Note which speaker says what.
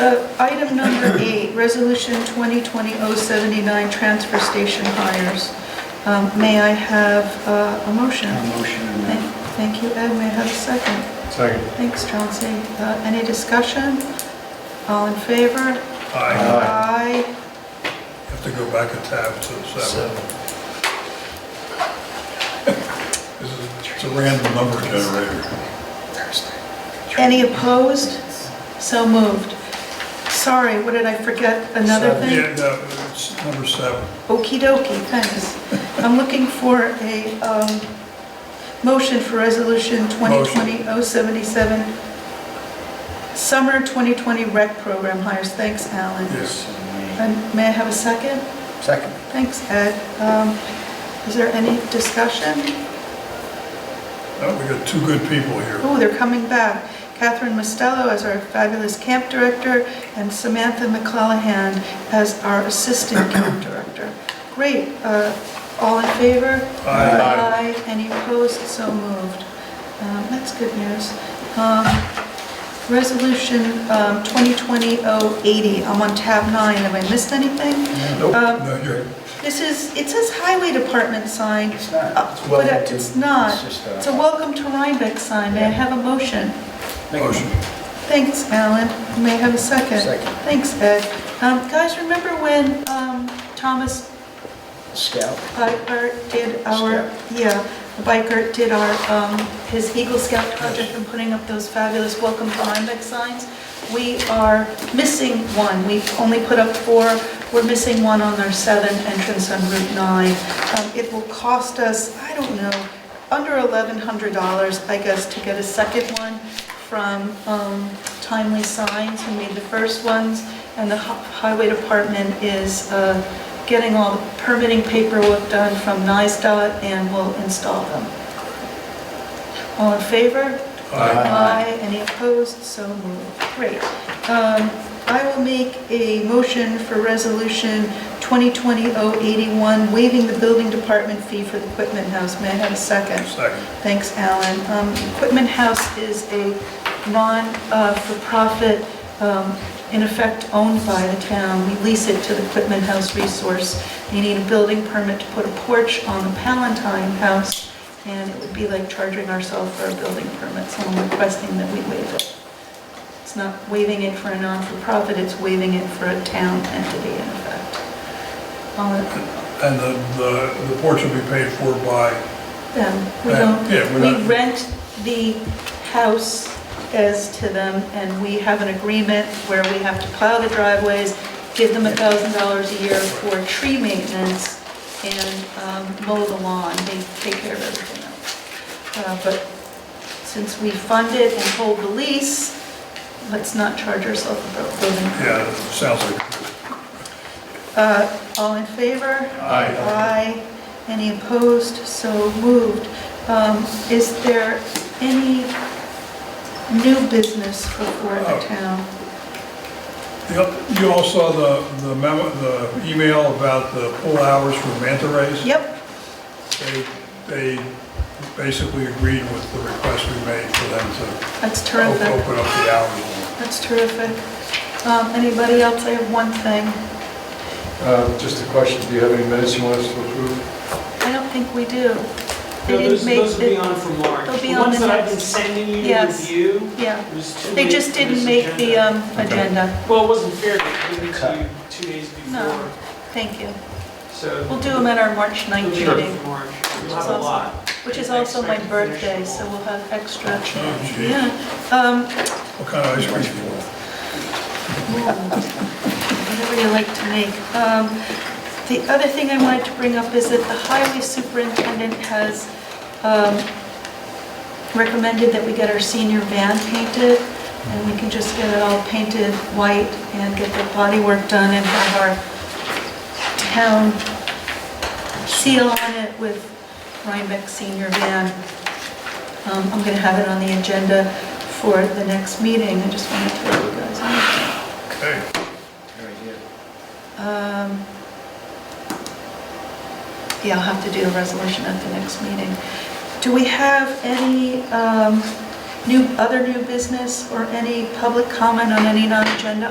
Speaker 1: Uh, Item number eight, Resolution 2020-079, Transfer Station Hires. Um, May I have uh, a motion?
Speaker 2: Motion and
Speaker 1: Thank
Speaker 2: then-
Speaker 1: thank you, Ed. May I have a second?
Speaker 3: Second.
Speaker 1: Thanks, Chauncey. Uh, Any discussion? All in favor?
Speaker 3: I
Speaker 2: Aye.
Speaker 1: Aye.
Speaker 3: Have to go back a tab to seven.
Speaker 2: Seven.
Speaker 3: This is, it's a random number generator.
Speaker 1: Any opposed? So moved. Sorry, what did I forget? Another
Speaker 2: Seven.
Speaker 1: thing?
Speaker 3: Yeah, no, it's number seven.
Speaker 1: Okey dokey, thanks. I'm looking for a um, motion for Resolution 2020-077, Summer 2020 Rec Program hires. Thanks, Alan.
Speaker 3: Yes.
Speaker 1: And may I have a second?
Speaker 2: Second.
Speaker 1: Thanks, Ed. Um, Is there any discussion?
Speaker 3: No, Oh, we got two good people here.
Speaker 1: Oh, they're coming back. Catherine Mostello as our fabulous camp director and Samantha McClellan as our assistant camp director. Great. Uh, All in favor?
Speaker 3: Aye.
Speaker 1: Aye. Any opposed? So moved. Um, That's good news. Um, Resolution um, 2020-080, I'm on tab nine, have I missed anything?
Speaker 3: Nope,
Speaker 1: Um,
Speaker 3: no, you're,
Speaker 1: This is, it says Highway Department sign,
Speaker 2: It's not.
Speaker 1: uh, but it- it's not.
Speaker 2: just
Speaker 1: It's
Speaker 2: a-
Speaker 1: a Welcome to Rhinebeck sign, may I have a motion?
Speaker 2: Make a
Speaker 3: motion.
Speaker 1: Thanks, Alan, may I have a second?
Speaker 2: Second.
Speaker 1: Thanks, Ed. Um, Guys, remember when um, Thomas
Speaker 2: Scout.
Speaker 1: Biker did our,
Speaker 2: Scout.
Speaker 1: yeah, Biker did our, um, his Eagle Scout project and putting up those fabulous welcome to Rhinebeck signs. We are missing one. We've only put up four. We're missing one on our southern entrance on Route 9. Um, It will cost us, I don't know, under $1,100, I guess, to get a second one from um, Timely Signs, who made the first ones, and the hi- Highway Department is uh, getting all the permitting paperwork done from NISDOT and will install them. All in favor?
Speaker 3: Aye.
Speaker 1: Aye. Any opposed? So moved. Great. Um, I will make a motion for Resolution 2020-081, waiving the building department fee for the Equipment House. May I have a second?
Speaker 3: Second.
Speaker 1: Thanks, Alan. Um, Equipment House is a non-for-profit, um, in effect owned by the town. We lease it to the Equipment House Resource. You need a building permit to put a porch on the Palatine House, and it would be like charging ourselves for a building permit, so I'm requesting that we waive it. It's not waiving it for a non-for-profit, it's waiving it for a town entity, in effect. All
Speaker 3: And the, the the porch will be paid for by,
Speaker 1: of them, we
Speaker 3: Yeah,
Speaker 1: don't
Speaker 3: Uh, yeah, we're
Speaker 1: We
Speaker 3: not,
Speaker 1: rent the house as to them, and we have an agreement where we have to plow the driveways, give them $1,000 a year for tree maintenance, and um, mow the lawn, they take care of everything else. Uh, But since we fund it and hold the lease, let's not charge ourselves a bu- building.
Speaker 3: yeah, it sounds like,
Speaker 1: Uh, All in favor?
Speaker 3: Aye.
Speaker 1: Aye. Any opposed? So moved. Um, Is there any new business before the
Speaker 3: Oh.
Speaker 1: town?
Speaker 3: Yep, you all saw the, the memo, the email about the pull hours for manta rays?
Speaker 1: Yep,
Speaker 3: They, they basically agreed with the request we made for them to
Speaker 1: that's
Speaker 3: op-
Speaker 1: terrific.
Speaker 3: open up the hours.
Speaker 1: That's terrific. Um, Anybody else? I have one thing.
Speaker 4: Uh, Just a question, do you have any minutes you want us to approve?
Speaker 1: I don't think we do. They
Speaker 5: No,
Speaker 1: didn't
Speaker 5: those,
Speaker 1: make
Speaker 5: those will be
Speaker 1: the-
Speaker 5: on for March.
Speaker 1: they'll be
Speaker 5: The
Speaker 1: on
Speaker 5: ones
Speaker 1: the
Speaker 5: that I've been
Speaker 1: next-
Speaker 5: sending you to
Speaker 1: Yes.
Speaker 5: review,
Speaker 1: Yeah,
Speaker 5: it was too
Speaker 1: they
Speaker 5: late
Speaker 1: just
Speaker 5: for
Speaker 1: didn't
Speaker 5: this
Speaker 1: make the
Speaker 5: agenda.
Speaker 1: um, agenda.
Speaker 5: Well, it wasn't fair to give it
Speaker 2: Cut.
Speaker 5: to you two days
Speaker 1: No.
Speaker 5: before,
Speaker 1: Thank you.
Speaker 5: so.
Speaker 1: We'll do them at our March 9th
Speaker 5: They'll be on
Speaker 1: meeting.
Speaker 5: for March,
Speaker 1: Which
Speaker 5: we'll
Speaker 1: is
Speaker 5: have a
Speaker 1: also-
Speaker 5: lot.
Speaker 1: Which is
Speaker 5: I
Speaker 1: also my
Speaker 5: expect to finish
Speaker 1: birthday,
Speaker 5: them
Speaker 1: so
Speaker 5: all.
Speaker 1: we'll have extra.
Speaker 3: Oh, gee.
Speaker 1: Yeah. Um,
Speaker 3: What kind of ice cream you want?
Speaker 1: Whatever you like to make. Um, The other thing I wanted to bring up is that the highway superintendent has um, recommended that we get our senior van painted, and we can just get it all painted white and get the body work done and have our town seal on it with Rhinebeck Senior Van. Um, I'm going to have it on the agenda for the next meeting, I just wanted to let you guys know.
Speaker 3: Okay,
Speaker 2: Very good.
Speaker 1: Um, Yeah, I'll have to do a resolution at the next meeting. Do we have any um, new, other new business or any public comment on any non-agenda